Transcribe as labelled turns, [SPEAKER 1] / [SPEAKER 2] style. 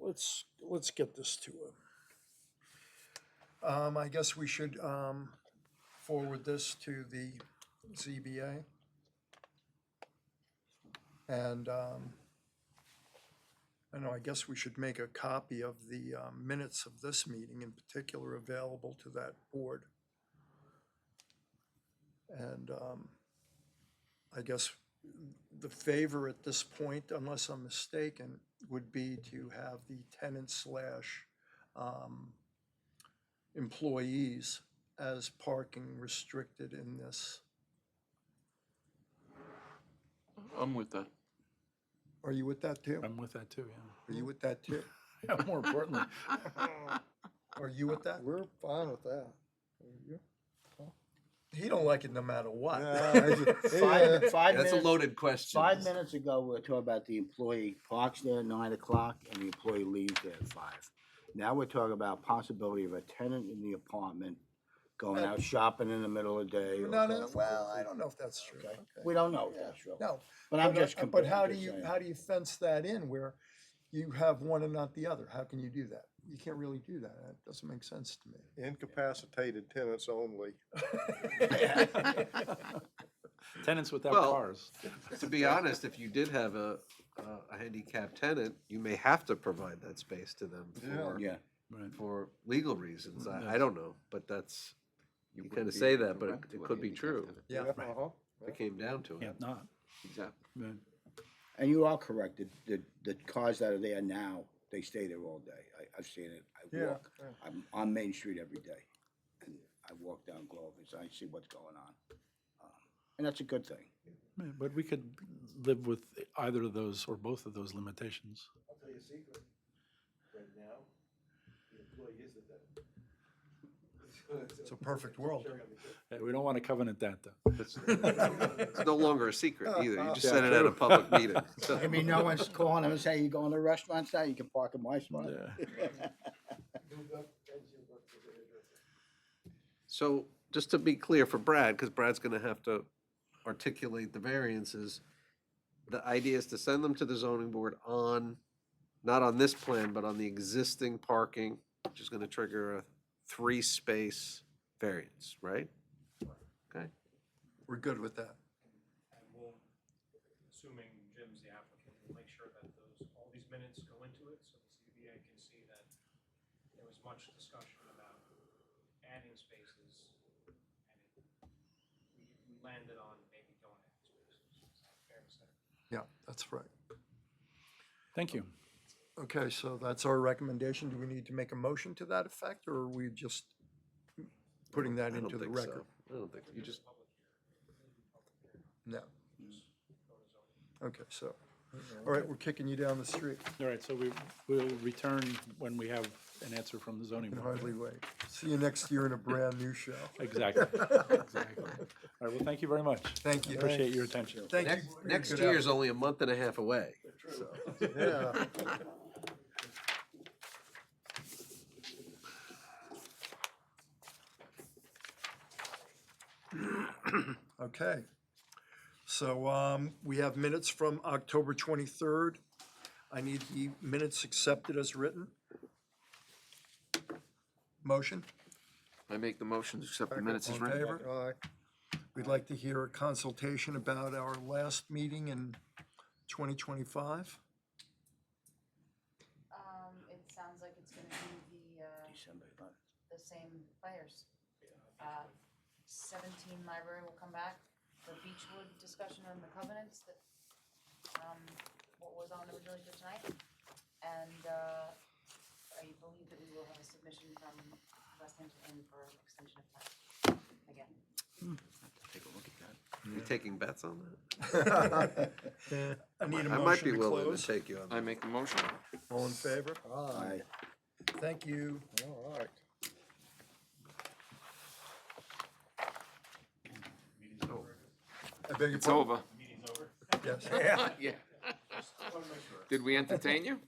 [SPEAKER 1] let's, let's get this to him. Um, I guess we should, um, forward this to the ZBA. And, um, I know, I guess we should make a copy of the uh, minutes of this meeting in particular available to that board. And, um, I guess the favor at this point, unless I'm mistaken, would be to have the tenant slash um, employees as parking restricted in this.
[SPEAKER 2] I'm with that.
[SPEAKER 1] Are you with that too?
[SPEAKER 3] I'm with that too,
[SPEAKER 1] Are you with that too?
[SPEAKER 3] yeah. More importantly,
[SPEAKER 1] Are you with that?
[SPEAKER 4] We're fine with that.
[SPEAKER 1] He don't like it no matter what.
[SPEAKER 4] uh, Five- Five
[SPEAKER 5] That's a
[SPEAKER 4] minutes,
[SPEAKER 5] loaded question.
[SPEAKER 4] five minutes ago, we were talking about the employee parks there at nine o'clock and the employee leaves there at five. Now we're talking about possibility of a tenant in the apartment going out shopping in the middle of the day. or
[SPEAKER 1] No,
[SPEAKER 4] going
[SPEAKER 1] no,
[SPEAKER 4] for-
[SPEAKER 1] well, I don't know if that's true.
[SPEAKER 4] uh, Okay.
[SPEAKER 1] Okay.
[SPEAKER 4] We don't know if that's true.
[SPEAKER 1] No.
[SPEAKER 4] But I'm
[SPEAKER 1] but, uh,
[SPEAKER 4] just.
[SPEAKER 1] But
[SPEAKER 4] comparing-
[SPEAKER 1] how
[SPEAKER 4] I'm
[SPEAKER 1] do
[SPEAKER 4] just
[SPEAKER 1] you,
[SPEAKER 4] saying.
[SPEAKER 1] how do you fence that in where you have one and not the other? How can you do that? You can't really do that. That doesn't make sense to me.
[SPEAKER 6] Incapacitated tenants only.
[SPEAKER 3] tenants without
[SPEAKER 2] Well-
[SPEAKER 3] cars.
[SPEAKER 2] To be honest, if you did have a, a- a handicapped tenant, you may have to provide that space to them
[SPEAKER 6] Yeah.
[SPEAKER 2] for,
[SPEAKER 4] Yeah.
[SPEAKER 3] Right.
[SPEAKER 2] for legal reasons. I, I
[SPEAKER 3] Yes.
[SPEAKER 2] don't know, but that's, you
[SPEAKER 5] wouldn't
[SPEAKER 2] kind of
[SPEAKER 5] be
[SPEAKER 2] say
[SPEAKER 5] able to
[SPEAKER 2] that, but it
[SPEAKER 5] rent to
[SPEAKER 2] it
[SPEAKER 5] a
[SPEAKER 2] could be
[SPEAKER 5] handicapped
[SPEAKER 2] true.
[SPEAKER 5] tenant.
[SPEAKER 6] Yeah. uh-huh,
[SPEAKER 2] If it came down to
[SPEAKER 3] Yeah,
[SPEAKER 2] it.
[SPEAKER 3] not.
[SPEAKER 2] Exactly.
[SPEAKER 3] right.
[SPEAKER 4] And you are correct, the, the, the cars that are there now, they stay there all day. I, I've seen it. I
[SPEAKER 6] Yeah.
[SPEAKER 4] walk, I'm on Main Street every day. And I walk down Glover's, I see what's going on. Um, And that's a good thing.
[SPEAKER 3] Yeah, But we could live with either of those or both of those limitations.
[SPEAKER 7] I'll tell you a secret, right now, the employee is the devil.
[SPEAKER 1] It's a perfect world.
[SPEAKER 3] Yeah, We don't want to covenant that, though.
[SPEAKER 2] It's no longer a secret either. You just said it at a public meeting. so-
[SPEAKER 4] I mean, no one's calling them and saying, you going to restaurants now? You can park in my spot.
[SPEAKER 3] Yeah.
[SPEAKER 2] So just to be clear for Brad, because Brad's going to have to articulate the variances, the idea is to send them to the zoning board on, not on this plan, but on the existing parking, which is going to trigger a three-space variance, right? Okay,
[SPEAKER 1] We're good with that.
[SPEAKER 7] And we'll, assuming Jim's the applicant, we'll make sure that those, all these minutes go into it, so the ZBA can see that there was much discussion about adding spaces, and it, we landed on maybe don't add spaces, is that fair to say?
[SPEAKER 1] Yeah, that's right.
[SPEAKER 3] Thank you.
[SPEAKER 1] Okay, so that's our recommendation. Do we need to make a motion to that effect or are we just putting that
[SPEAKER 2] I don't
[SPEAKER 1] into the
[SPEAKER 2] think
[SPEAKER 1] record?
[SPEAKER 2] so. I don't think, so. you just,
[SPEAKER 1] No. Okay, so, all right, we're kicking you down the street.
[SPEAKER 3] All right, so we will return when we have an answer from the zoning
[SPEAKER 1] Can
[SPEAKER 3] board.
[SPEAKER 1] hardly wait. See you next year in a brand new show.
[SPEAKER 3] Exactly. Exactly. All right, well, thank you very much.
[SPEAKER 1] Thank you.
[SPEAKER 3] Appreciate your attention.
[SPEAKER 1] Thank you.
[SPEAKER 2] next,
[SPEAKER 1] for your
[SPEAKER 2] next
[SPEAKER 1] good
[SPEAKER 2] year is only a month and a half away.
[SPEAKER 6] Yeah.
[SPEAKER 1] Okay. So um, we have minutes from October 23rd. I need the minutes accepted as written. Motion?
[SPEAKER 5] I make the motion to accept the
[SPEAKER 1] Second.
[SPEAKER 5] minutes
[SPEAKER 1] All
[SPEAKER 5] as
[SPEAKER 1] in
[SPEAKER 5] written.
[SPEAKER 1] favor? We'd like to hear a consultation about our last meeting in 2025.
[SPEAKER 8] Um, it sounds like it's gonna be the, uh,
[SPEAKER 4] December 11th.
[SPEAKER 8] the same players. Uh, Seventeen library will come back, the Beechwood discussion on the covenants that, um, what was on originally for tonight. And, uh, I believe that we will have a submission from West Hampton for extension of time, again.
[SPEAKER 5] Take a look at that.
[SPEAKER 2] You taking bets on that?
[SPEAKER 1] I need a
[SPEAKER 2] I might be
[SPEAKER 1] motion to
[SPEAKER 2] willing to
[SPEAKER 1] close.
[SPEAKER 2] take you on that.
[SPEAKER 5] I make the motion.
[SPEAKER 1] All in favor?
[SPEAKER 4] Aye.
[SPEAKER 1] Thank you.
[SPEAKER 6] All right.
[SPEAKER 1] I beg your
[SPEAKER 5] It's over.
[SPEAKER 1] pardon? Yes.
[SPEAKER 5] Yeah. Did we entertain you?